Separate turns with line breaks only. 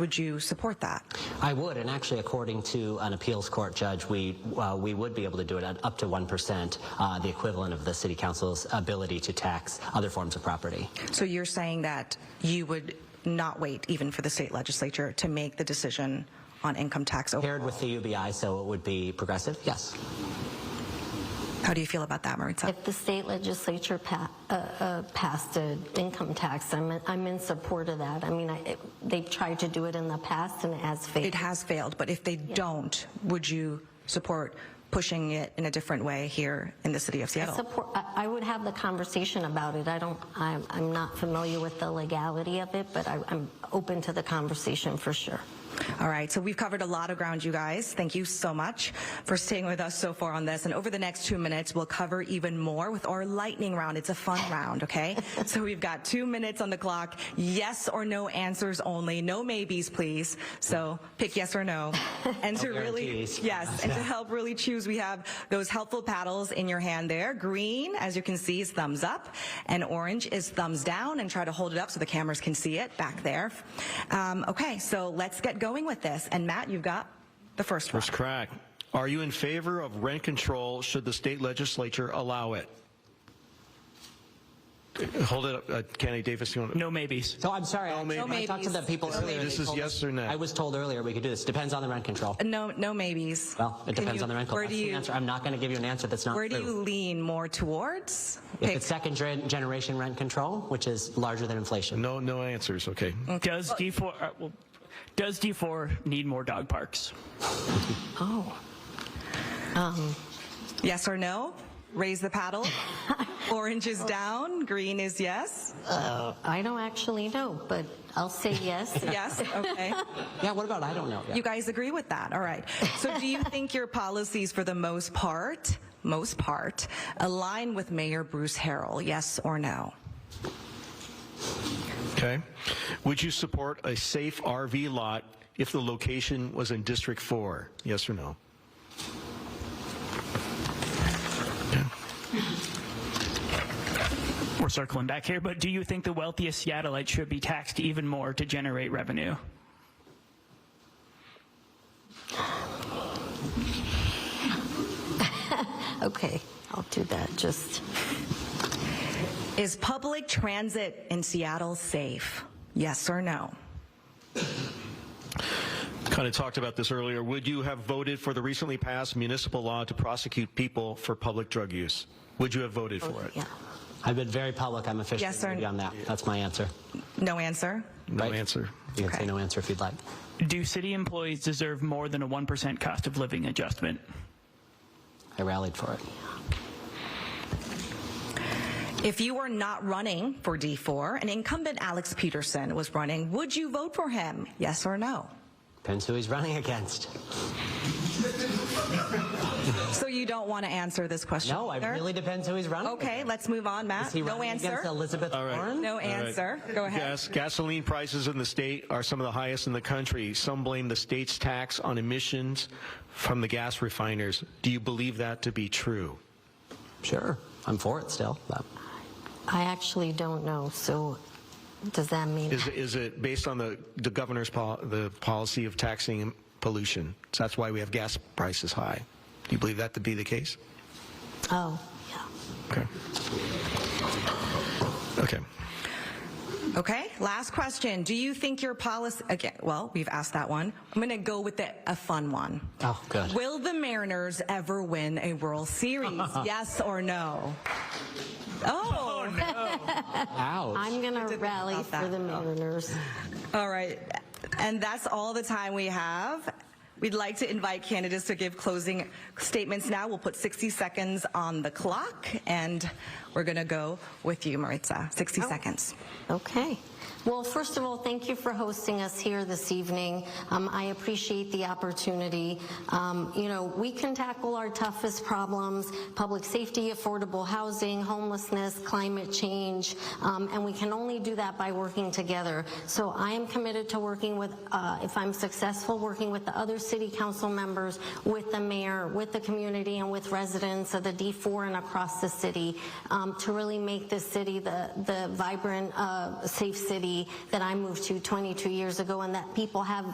Would you support that?
I would, and actually, according to an appeals court judge, we uh, we would be able to do it at up to one percent, uh, the equivalent of the city council's ability to tax other forms of property.
So you're saying that you would not wait even for the state legislature to make the decision on income tax over.
Paired with the UBI, so it would be progressive. Yes.
How do you feel about that, Maritza?
If the state legislature pa- uh, uh, passed an income tax, I'm in, I'm in support of that. I mean, I, it, they've tried to do it in the past and it has
It
failed.
has failed, but if they don't, would you support pushing it in a different way here in the city of
I
Seattle?
support. I, I would have the conversation about it. I don't. I'm, I'm not familiar with the legality of it, but I, I'm open to the conversation for sure.
All right, so we've covered a lot of ground, you guys. Thank you so much for staying with us so far on this. And over the next two minutes, we'll cover even more with our lightning round. It's a fun round, okay? so we've got two minutes on the clock. Yes or no answers only. No maybes, please. So pick yes or no. And to really,
guarantees.
yes, and to help really choose, we have those helpful paddles in your hand there. Green, as you can see, is thumbs up, and orange is thumbs down. And try to hold it up so the cameras can see it back there. Um, okay, so let's get going with this. And Matt, you've got the first one.
First crack. Are you in favor of rent control should the state legislature allow it? Hold it up, uh, Kenny Davis. You want
No maybes.
So I'm sorry. I,
maybes.
I talked to the people earlier.
this
They
is
told
yes
us-
or no.
I was told earlier we could do this. Depends on the rent control.
Uh, No, no maybes.
Well, it
Can
depends
you-
on the rent control.
Where
That's
do
the
you,
answer. I'm not going to give you an answer that's not
where do
true.
you lean more towards?
if it's second gen- generation rent control, which is larger than inflation.
No, no answers. Okay.
Does D4 uh, well, does D4 need more dog parks?
Oh.
Yes or no? Raise the paddle. Orange is down. Green is yes.
I don't actually know, but I'll say yes.
Yes. Okay.
Yeah. What about I don't know. Yeah.
You guys agree with that? All right. So do you think your policies for the most part, most part, align with Mayor Bruce Harrell? Yes or no?
Okay. Would you support a safe RV lot if the location was in District 4? Yes or no?
We're circling back here, but do you think the wealthiest Seattleites should be taxed even more to generate revenue?
Okay, I'll do that. Just
Is public transit in Seattle safe? Yes or no?
Kind of talked about this earlier. Would you have voted for the recently passed municipal law to prosecute people for public drug use? Would you have voted for it?
yeah.
I've been very public. I'm officially
Yes or-
gonna be on that. That's my answer.
No answer?
No
Right.
answer.
You can
Okay.
say no answer if you'd like.
Do city employees deserve more than a 1% cost of living adjustment?
I rallied for it.
If you were not running for D4 and incumbent Alex Peterson was running, would you vote for him? Yes or no?
Depends who he's running against.
So you don't want to answer this question?
No, it
either?
really depends who he's running.
Okay,
against.
let's move on,
Is
Matt.
he
No
running
answer?
against Elizabeth
All right.
Warren?
No
All right.
answer. Go ahead.
Gas, gasoline prices in the state are some of the highest in the country. Some blame the state's tax on emissions from the gas refiners. Do you believe that to be true?
Sure, I'm for it still. But
I actually don't know. So, does that mean
Is, is it based on the, the governor's pol- the policy of taxing pollution? So that's why we have gas prices high. Do you believe that to be the case?
Oh, yeah.
Okay. Okay.
Okay, last question. Do you think your policy, again, well, we've asked that one. I'm going to go with the, a fun one.
oh, good.
Will the Mariners ever win a World Series? yes or no? Oh,
Ouch.
I'm going to rally
about that.
for the Mariners.
all right. And that's all the time we have. We'd like to invite candidates to give closing statements now. We'll put 60 seconds on the clock, and we're going to go with you, Maritza.
Oh.
60 seconds.
Okay. Well, first of all, thank you for hosting us here this evening. Um, I appreciate the opportunity. Um, you know, we can tackle our toughest problems public safety, affordable housing, homelessness, climate change, um, and we can only do that by working together. So I am committed to working with, uh, if I'm successful, working with the other city council members, with the mayor, with the community, and with residents of the D4 and across the city um, to really make this city the, the vibrant, uh, safe city city that I moved to 22 years ago and that people have